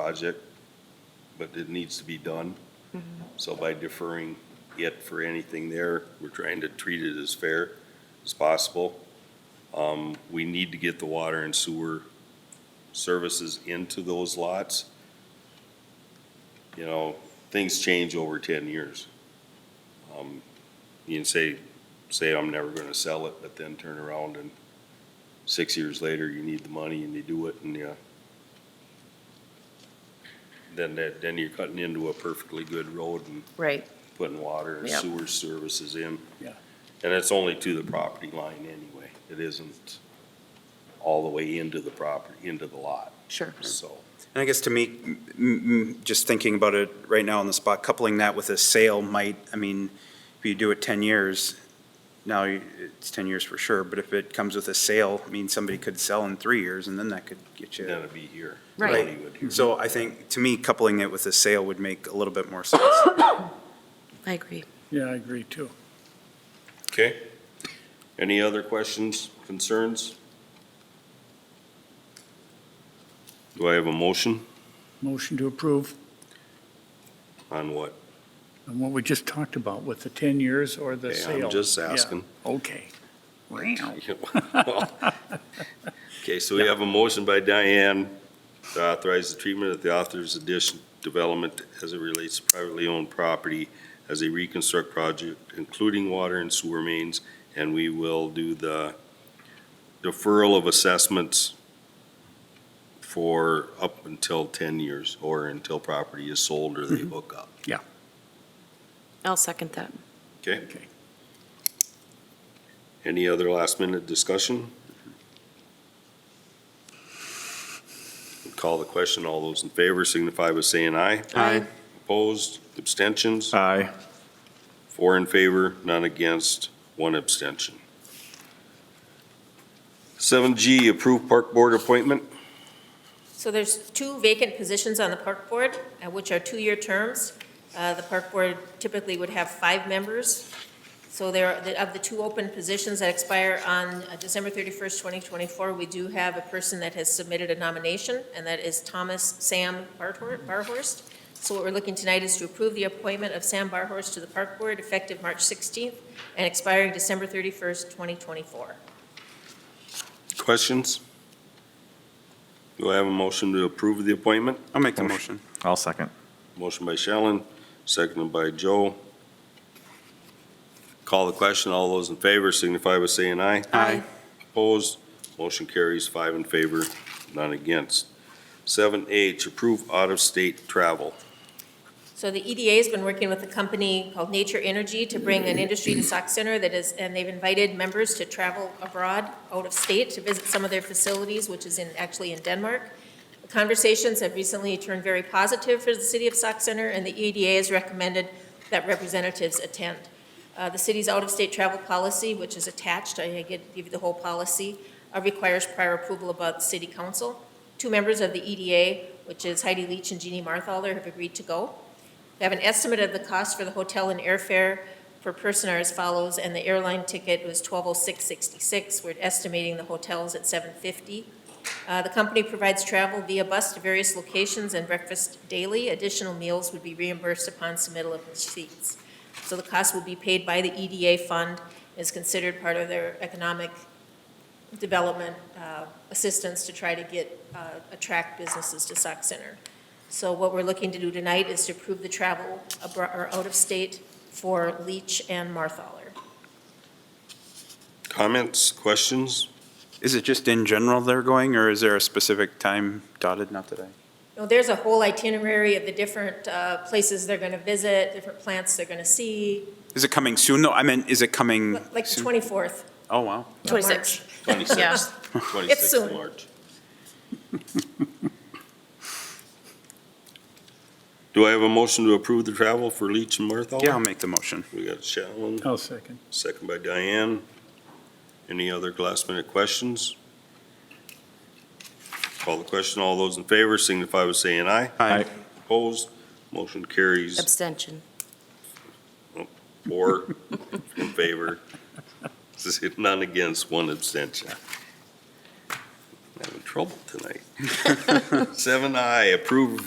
project, but it needs to be done. So by deferring it for anything there, we're trying to treat it as fair as possible. Um, we need to get the water and sewer services into those lots. You know, things change over ten years. Um, You can say, say I'm never gonna sell it, but then turn around and six years later, you need the money and you do it and you then that, then you're cutting into a perfectly good road and Right, putting water and Yep. sewer services in. Yeah. And it's only to the property line anyway. It isn't all the way into the property, into the lot, sure. so. And I guess to me, m- m- just thinking about it right now on the spot, coupling that with a sale might, I mean, if you do it 10 years, now you- it's 10 years for sure, but if it comes with a sale, I mean, somebody could sell in three years and then that could get Then you. Mm-hmm. it'd be here. Right. Hollywood here. So I think, to me, coupling it with a sale would make a little bit more sense. I agree. Yeah, I agree too. Okay. Any other questions, concerns? Do I have a motion Motion to approve on what? on what we just talked about with the 10 years or the Okay, sale. I'm just Yeah, asking. Okay. Wow. Okay, so we have a motion by Diane to authorize the treatment of the author's addition development as it relates to privately owned property as a reconstruct project, including water and sewer mains, and we will do the deferral of assessments for up until ten years, or until property is sold or they hook up. I'll second that. Okay? Okay. Any other last minute discussion? Call the question. All those in favor signify by saying aye. Aye. Opposed, abstentions? Aye. Four in favor, none against, one abstention. Seven G, approve park board appointment. So there's two vacant positions on the park board, uh, which are two-year terms. Uh, The park board typically would have five members. So there, are- of the two open positions that expire on uh, December 31st, 2024, we do have a person that has submitted a nomination, and that is Thomas Sam Barhor- Barhorst. So what we're looking tonight is to approve the appointment of Sam Barhorst to the park board effective March 16th and expiring December 31st, 2024. Questions? Do I have a motion to approve the appointment? I'll make the motion. I'll second. Motion by Shellen, seconded by Joe. Call the question. All those in favor signify by saying aye. Aye. Opposed, motion carries five in favor, none against. Seven H, approve out-of-state travel. So the EDA's been working with a company called Nature Energy to bring an industry to Sauk Center that is, and they've invited members to travel abroad, out of state, to visit some of their facilities, which is in, actually in Denmark. The Conversations have recently turned very positive for the city of Sauk Center, and the EDA has recommended that representatives attend. Uh, The city's out-of-state travel policy, which is attached, I get- give you the whole policy, uh, requires prior approval about the city council. Two members of the EDA, which is Heidi Leach and Jeannie Marthaler, have agreed to go. We have an estimate of the cost for the hotel and airfare per person are as follows, and the airline ticket was twelve oh six sixty-six. We're estimating the hotels at seven fifty. Uh, the company provides travel via bus to various locations and breakfast daily. Additional meals would be reimbursed upon submittal of receipts. So the cost will be paid by the EDA fund, is considered part of their economic development, uh, assistance to try to get, uh, attract businesses to Sauk Center. So what we're looking to do tonight is to approve the travel abroad, or out of state for Leach and Marthaler. Comments, questions? Is it just in general they're going, or is there a specific time dotted? Not that I. You know, there's a whole itinerary of the different, uh, places they're gonna visit, different plants they're gonna see, Is it coming soon, though? I meant, is it coming? like the soon? twenty-fourth. Oh, wow. Twenty-six. Yeah. Twenty-sixth, It's twenty-sixth of soon. March. Do I have a motion to approve the travel for Leach and Martha? Yeah, I'll make the motion. We got Shallen, I'll second. second by Diane. Any other last minute questions? Call the question. All those in favor signify by saying aye. Aye. Opposed, motion carries. Oh, Abstention. Four in favor, none against, one abstention. I'm Having trouble tonight. Seven I, approve